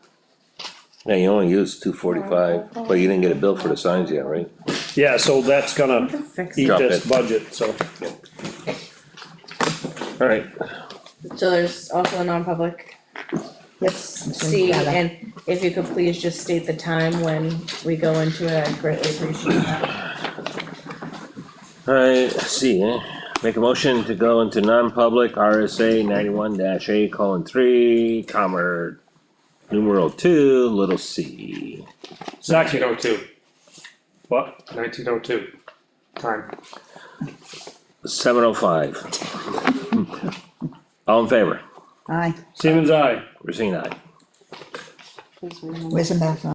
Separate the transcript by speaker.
Speaker 1: Yeah, you only used two forty-five, but you didn't get a bill for the signs yet, right?
Speaker 2: Yeah, so that's gonna
Speaker 3: Fix
Speaker 2: eat
Speaker 3: it.
Speaker 1: Drop
Speaker 2: this
Speaker 1: it.
Speaker 2: budget, so,
Speaker 1: Alright,
Speaker 4: So there's also a non-public
Speaker 3: Yes.
Speaker 4: C, and if you could please just state the time when we go into it, I'd greatly appreciate that.
Speaker 1: alright, see, eh? Make a motion to go into non-public RSA ninety-one dash A colon three, comma, numeral two, little c.
Speaker 2: second,
Speaker 5: Nineteen oh two.
Speaker 2: what,
Speaker 5: Nineteen oh two. Time.
Speaker 1: Seven oh five. All in favor,
Speaker 3: Aye,
Speaker 2: Siemens, I.
Speaker 1: Rosina, aye.
Speaker 3: where's the bathroom?